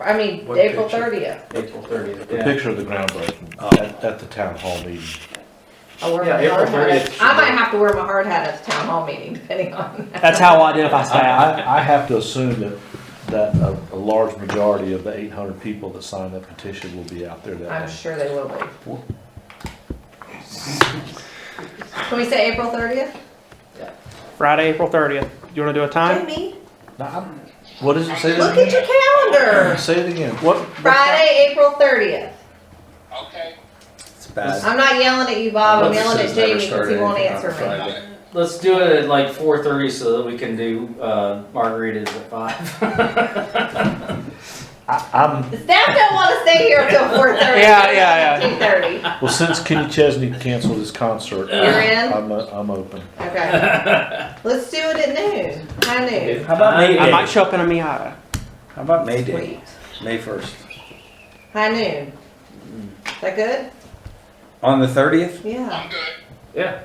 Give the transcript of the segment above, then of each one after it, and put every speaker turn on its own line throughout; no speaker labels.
I mean,
What
April
picture?
thirtieth.
April thirtieth,
The
yeah.
picture of the groundbreaking
Oh.
at, at the town hall meeting.
I wear
Yeah,
my
April
hard hat.
30th.
I might have to wear my hard hat at the town hall meeting, depending on.
That's how I identify
I,
staff.
I, I have to assume that, that a, a large majority of the eight hundred people that signed that petition will be out there
I'm
that day.
sure they will be. Can we say April thirtieth?
Friday, April 30th. You want to do a time?
Jamie,
Now, I'm- What does it say? it
look at your calendar.
again? Say it again.
What?
Friday, April thirtieth.
Okay,
It's bad.
I'm not yelling at you, Bob. I'm
Love
yelling at
says never
Jamie because he
started
won't
anything on
answer me.
Friday.
Let's do it at like four thirty so that we can do uh, margaritas at five.
I, I'm,
The Staff don't want to stay here until four thirty.
Yeah, yeah, yeah.
Two thirty.
well, since Kenny Chesney canceled his concert,
You're in?
I'm, o- I'm open.
Okay. Let's do it at noon. High noon.
How about May
I might
Day?
show up in a Miata.
How about May Day?
Sweet.
May first.
High noon. Is that good?
On the thirtieth?
Yeah.
I'm good.
yeah,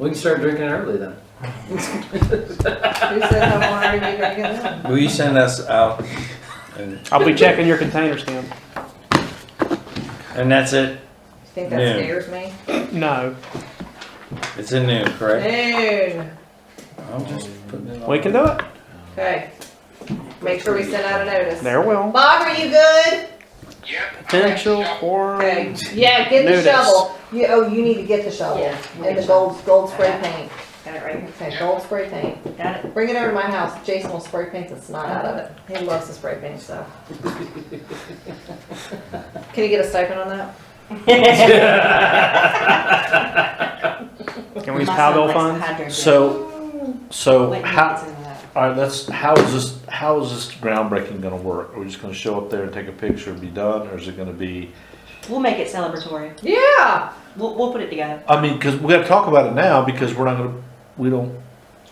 we can start drinking early then.
Who said I want to be drinking then?
Will you send us out? And,
I'll be checking your container stem.
and that's it.
You think that
Noon.
scares me?
No,
It's in noon, correct?
Noon.
I'm just putting it on.
we can do it.
Okay. Make sure we send out a notice.
There will.
Bob, are you good?
Yep.
Potential for.
Okay. Yeah, get the
Notice.
shovel. You, oh, you need to get the shovel and the gold, gold spray paint.
Got it right here.
Okay, gold spray paint.
Got
Bring it over to my house. Jason will spray paint the snot out of it. He loves to spray paint stuff. Can you get a stipend on that?
it.
Can we use Powell funds?
So, so
Wait,
how,
it's in that.
All right, let's, how is this, how is this groundbreaking gonna work? Are we just gonna show up there and take a picture and be done, or is it gonna be?
We'll make it celebratory.
Yeah.
We'll, we'll put it together.
I mean, cause we gotta talk about it now, because we're not gonna, we don't,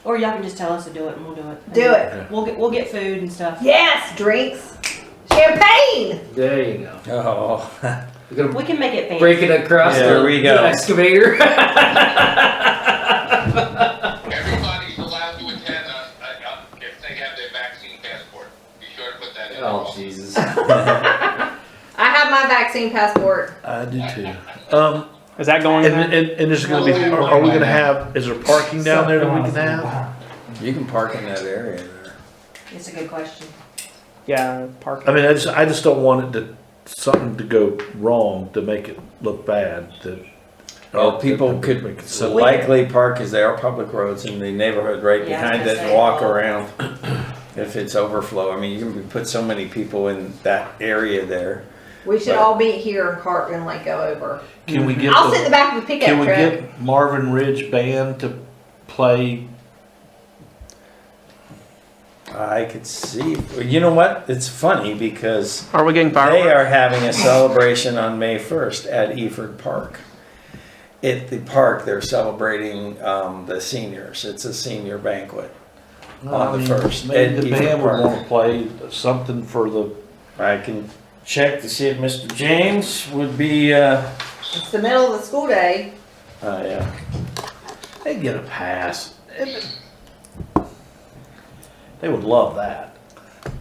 Or y'all can just tell us to do it and we'll do it.
Do it.
We'll get, we'll get food and stuff.
Yes, drinks. Champagne.
There you go.
Oh,
We're gonna
We can make it fancy.
break it across
Yeah,
the,
we
the
go.
excavator.
Everybody's allowed to attend uh, uh, if they have their vaccine passport. Be sure to put that in.
oh Jesus!
I have my vaccine passport.
I do too. Um,
Is that going
and,
in?
and, and there's gonna be, are are we gonna have, is there parking down there that we can have?
you can park in that area there.
It's a good question.
Yeah, park.
I mean, I just, I just don't want it to, something to go wrong to make it look bad, that.
Well, Oh, people could
Make it
so
so-
likely park as they are public roads in the neighborhood right
Yeah, I was
behind
gonna
it and
say.
walk around. If it's overflow, I mean, you can put so many people in that area there.
We should all meet here in Cartland, like go over.
Can we get
I'll sit in the
the,
back of the
can
pickup
we
truck.
get Marvin Ridge Band to play
I could see, you know what? It's funny because
Are we getting
They
fireworks?
are having a celebration on May 1st at Eford Park. At the park, they're celebrating um, the seniors. It's a senior banquet. on the first,
Maybe
at
the
Beaver
band would
Park.
wanna play something for the,
I can check to see if Mr. James would be, uh,
It's the middle of the school day.
oh, yeah.
they get a pass. They would love that.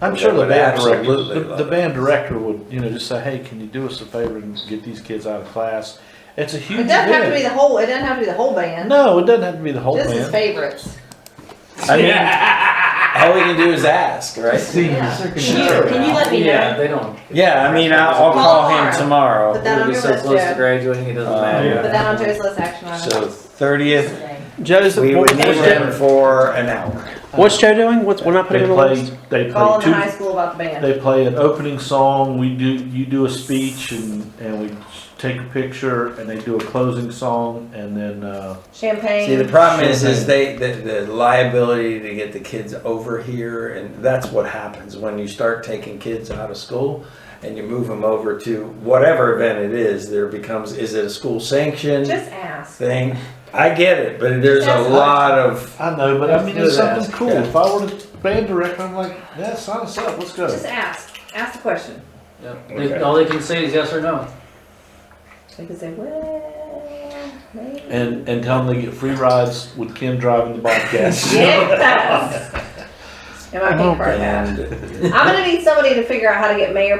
I'm
They
sure the
would
band
absolutely
director, the-
love
the
it.
band director would, you know, just say, hey, can you do us a favor and get these kids out of class? It's a huge
It doesn't have to be
event.
the whole, it doesn't have to be the whole band.
No, it doesn't have to be the whole
This is
band.
favorites.
I mean, all we can do is ask, right?
Yeah.
Sure. Can you let me
yeah,
know?
they don't.
Yeah, I mean, I'll, I'll call him
But
tomorrow.
that
We'll
on
be
your
so
list,
close to
Joe.
graduating, it doesn't
Uh,
matter.
Put that on Joe's list, action item.
So 30th,
Today.
Joseph,
we would
what-
need
what's, Joe,
him for an hour.
what's Joe doing? What's we're not
They
putting him on the
play,
list?
they
Call
play
in the high
two,
school about the band.
they play an opening song, we do, you do a speech and, and we take a picture and they do a closing song and then, uh,
See, the
Champagne.
problem is,
Sure
is
thing.
they, the, the liability to get the kids over here, and that's what happens when you start taking kids out of school and you move them over to whatever event it is, there becomes, is it a school sanctioned
Just ask.
thing? I get it, but there's a
That's
lot of,
I know, but I
Let's
mean,
do
it's
that.
something cool.
Yeah.
If I were the band director, I'm like, yeah, sign us up. Let's go.
Just ask. Ask the question.
Yep. They- all they can say is yes or no.
They could say, well, maybe.
And and tell them they get free rides with Kim driving the Bobcat.
Yes. Am I being part of that?
and
I'm gonna need somebody to figure out how to get mayor